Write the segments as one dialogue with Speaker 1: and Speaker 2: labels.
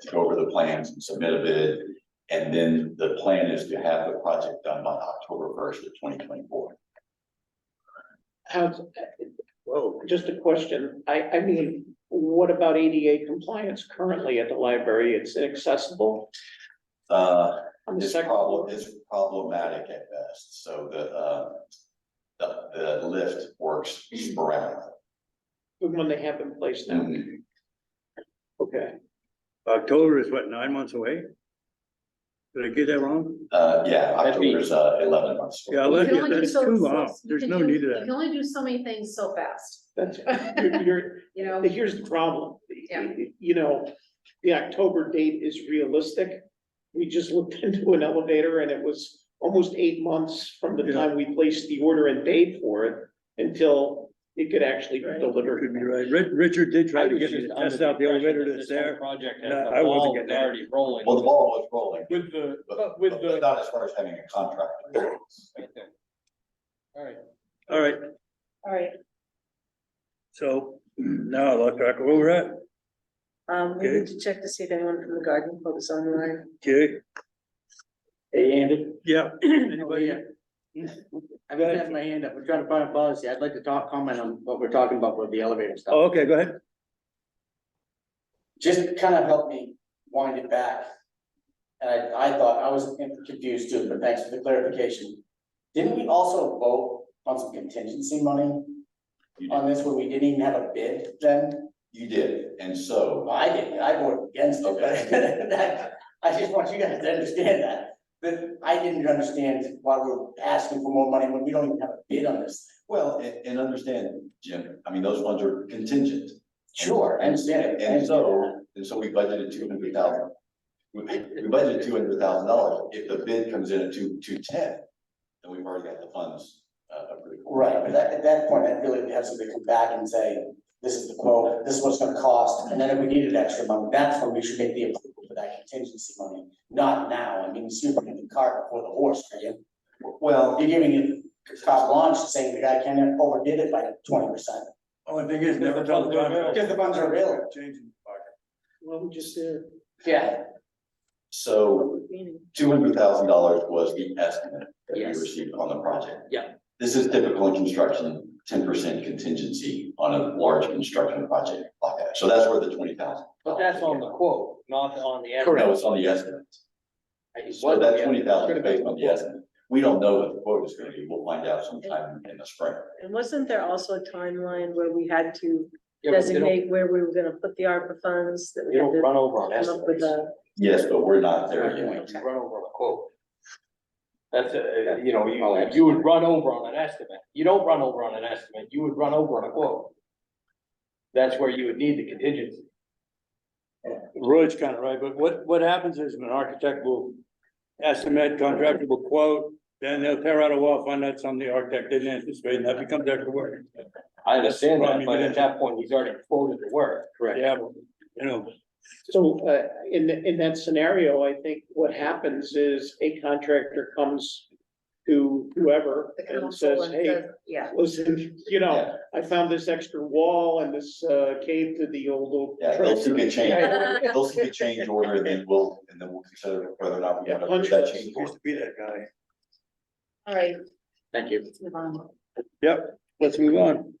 Speaker 1: to go over the plans and submit a bid. And then the plan is to have the project done by October first of twenty twenty-four.
Speaker 2: How's, whoa, just a question. I, I mean, what about ADA compliance currently at the library? It's inaccessible
Speaker 1: Uh,
Speaker 2: on the
Speaker 1: It's
Speaker 2: second
Speaker 1: problem,
Speaker 2: floor.
Speaker 1: it's problematic at best, so the, uh, the, the lift works sporadically.
Speaker 2: The one they have in place now.
Speaker 1: And
Speaker 3: Mm-hmm.
Speaker 2: Okay.
Speaker 3: October is what, nine months away? Did I get that wrong?
Speaker 1: Uh, yeah, October's, uh, eleven months.
Speaker 3: Yeah,
Speaker 4: You can
Speaker 3: Olivia,
Speaker 4: only do
Speaker 3: that's
Speaker 4: so-
Speaker 3: too
Speaker 4: so-
Speaker 3: long.
Speaker 4: you
Speaker 3: There's
Speaker 4: can
Speaker 3: no
Speaker 4: do-
Speaker 3: need of
Speaker 4: You
Speaker 3: that.
Speaker 4: can only do so many things so fast,
Speaker 2: That's, you're, you're-
Speaker 4: you know?
Speaker 2: here's the problem.
Speaker 4: Yeah.
Speaker 2: You know, the October date is realistic. We just looked into an elevator and it was almost eight months from the
Speaker 3: Yeah.
Speaker 2: time we placed the order and paid for it until it could actually be
Speaker 5: Right.
Speaker 3: Could be
Speaker 2: delivered.
Speaker 3: right. Ri- Richard did try
Speaker 5: I
Speaker 3: to
Speaker 5: was
Speaker 3: get me
Speaker 5: just
Speaker 3: to
Speaker 5: under
Speaker 3: test out the
Speaker 5: impression
Speaker 3: elevator
Speaker 5: that
Speaker 3: that's
Speaker 5: this whole
Speaker 3: there.
Speaker 5: Project
Speaker 3: and
Speaker 5: has
Speaker 3: I wasn't
Speaker 5: the ball
Speaker 3: getting
Speaker 5: was
Speaker 3: that.
Speaker 5: already rolling.
Speaker 1: Well, the ball was rolling,
Speaker 5: With the,
Speaker 1: but,
Speaker 5: with
Speaker 1: but
Speaker 5: the.
Speaker 1: not as far as having a contract.
Speaker 5: All right.
Speaker 3: All right,
Speaker 6: All right,
Speaker 3: so now I lost track of where we're at.
Speaker 6: um, we
Speaker 3: Okay.
Speaker 6: need to check to see if anyone from the garden club is online.
Speaker 3: Okay,
Speaker 7: Hey, Andy.
Speaker 3: yeah, anybody?
Speaker 7: Yeah. I've been having my hand up. We're trying to find a policy. I'd like to talk, comment on what we're talking about with the elevator
Speaker 3: Oh,
Speaker 7: stuff.
Speaker 3: Okay, go ahead.
Speaker 7: Just kind of help me wind it back. And I, I thought, I was confused too, but thanks for the clarification. Didn't we also vote on some contingency money
Speaker 1: You did,
Speaker 7: on this where we didn't even have a bid then?
Speaker 1: you did, and so,
Speaker 7: Well, I didn't, I voted against it, but that, I just want you guys to understand that. That I didn't understand why we're asking for more money when we don't even have a bid on this.
Speaker 1: well, and, and understand, Jim, I mean, those ones are contingent.
Speaker 7: Sure, I understand it. I
Speaker 1: And
Speaker 7: understand
Speaker 1: so, and so we budgeted two hundred thousand. We, we budgeted two hundred thousand dollars. If the bid comes in at two, two ten, then we've already got the funds, uh, approved.
Speaker 7: Right, but that, at that point, I'd really have somebody come back and say, this is the quote, this is what it's gonna cost, and then if we needed extra money, that's when we should make the approval for that contingency money. Not now, I mean, it's super the cart before the horse, right? You're
Speaker 1: Well,
Speaker 7: giving it carte blanche, saying the guy can not overdid it by twenty percent.
Speaker 3: Only thing is,
Speaker 5: never tell the contractor.
Speaker 7: If the funds are available.
Speaker 3: Changing.
Speaker 2: Well, we just did.
Speaker 7: Yeah.
Speaker 1: so two hundred thousand dollars was the estimate that we
Speaker 7: Yes.
Speaker 1: received on the project.
Speaker 7: Yeah.
Speaker 1: This is typical in construction, ten percent contingency on a large construction project like that. So that's where the twenty thousand.
Speaker 5: But that's on the quote, not on the. actual-
Speaker 1: No, it's on the estimate. So that twenty thousand is based on the estimate. We don't know what the quote is gonna be. We'll find out sometime in the spring.
Speaker 6: And wasn't there also a timeline where we had to
Speaker 5: Yeah, but they don't-
Speaker 6: designate where we were gonna put the ARPA funds that we
Speaker 5: You
Speaker 6: had
Speaker 5: don't
Speaker 6: to
Speaker 5: run over on
Speaker 6: come up with
Speaker 5: estimates.
Speaker 6: a?
Speaker 1: Yes, but we're not
Speaker 5: You
Speaker 1: there yet.
Speaker 5: run over on a quote. That's, uh, you know, you, you would run over on an estimate. You don't run over on an estimate, you would run over on a quote. That's where you would need the contingency.
Speaker 3: Roy's kind of right, but what, what happens is an architect will estimate, contractor will quote, then they'll tear out a wall, find out something the architect didn't anticipate, and that becomes extra work.
Speaker 5: I understand
Speaker 3: Right,
Speaker 5: that,
Speaker 3: you
Speaker 5: but
Speaker 3: can-
Speaker 5: at that point, he's already quoted the work. Correct.
Speaker 3: Yeah, you know,
Speaker 2: So, uh, in, in that scenario, I think what happens is a contractor comes to whoever
Speaker 6: the
Speaker 2: and
Speaker 6: council
Speaker 2: says,
Speaker 6: and
Speaker 2: hey,
Speaker 6: says- Yeah,
Speaker 2: listen, you know,
Speaker 1: Yeah,
Speaker 2: I found this extra wall and this, uh, cave to the old. old
Speaker 1: yeah, they'll seek a change,
Speaker 2: Yeah,
Speaker 1: they'll seek a change order and then we'll, and then we'll consider whether or not we
Speaker 2: Yeah,
Speaker 1: have to
Speaker 2: punch
Speaker 1: approve that
Speaker 2: list.
Speaker 1: change
Speaker 3: used
Speaker 1: order.
Speaker 3: to be that guy.
Speaker 6: all right,
Speaker 5: Thank you.
Speaker 6: let's move on.
Speaker 3: Yep, let's move on.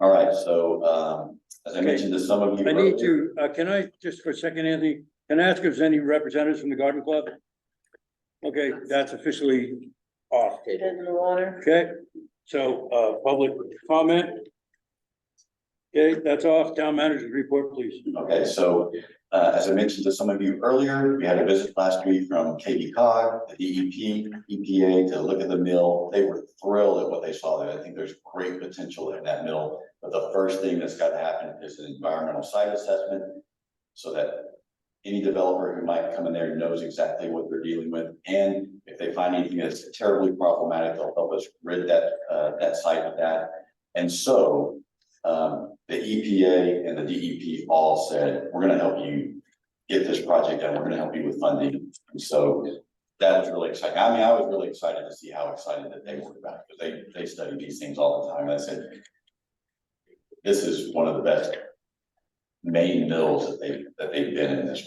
Speaker 1: All right, so, um, as I mentioned to some of you.
Speaker 3: I need
Speaker 1: earlier,
Speaker 3: to, uh, can I, just for a second, Anthony, can I ask if there's any representatives from the garden club? Okay, that's officially off.
Speaker 6: Dead in the water,
Speaker 3: Okay, so, uh, public comment. Okay, that's off. Town manager's report, please.
Speaker 1: Okay, so, uh, as I mentioned to some of you earlier, we had a visit last week from KB cog, the E DEP, EPA to look at the mill. They were thrilled at what they saw there. I think there's great potential in that mill. But the first thing that's got to happen is an environmental site assessment so that any developer who might come in there knows exactly what they're dealing with. And if they find anything that's terribly problematic, they'll help us rid that, uh, that site of that. And so, um, the EPA and the DEP all said, we're gonna help you get this project done. We're gonna help you with funding. And so that was really exciting. I mean, I was really excited to see how excited that they were about it, because they, they study these things all the time. I said, this is one of the best main mills that they, that they've been in this